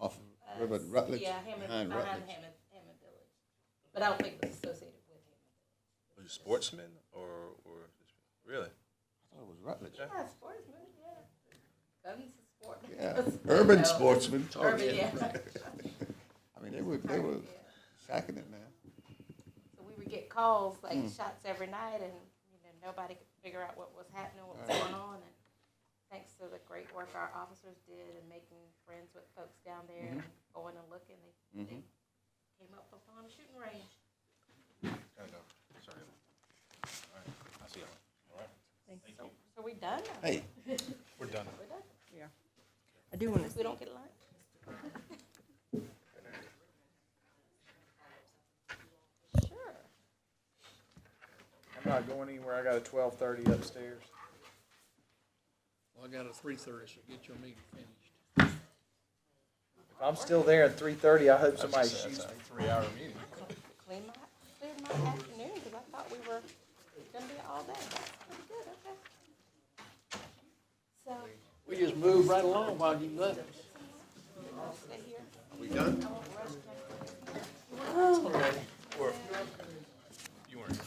Rutledge, but Rutledge uh, Yeah, Hammond, behind behind Rutledge. Hammond, Hammond Village. But I don't think it was associated with Hammond. Were you sportsmen or, or really? I thought it was Rutledge. Yeah, sportsman, yeah. Guns is sport. Yeah, urban No. sportsmen. Urban, yeah. I mean, they were they were sacking it, man. So we would get calls, like Hmm. shots every night and, you know, nobody could figure out what was happening, what was going on. And thanks to the great work our officers did in making friends with folks down there Mm-hmm. and going and looking, they, they came up upon a shooting range. Kind of. Sorry. All right. I see y'all. All right. So, so we done now. Hey, We're done. We're done. Yeah. I do want to, We don't get lunch. Sure. I'm not going anywhere. I got a twelve thirty upstairs. Well, I got a three thirty, so get your meeting finished. If I'm still there at three thirty, I hope somebody That's a- shoots that's me. a three-hour meeting. Clean my, clear my afternoon, because I thought we were gonna be all day. That's pretty good, okay. So, We just moved right along while you left. stay here.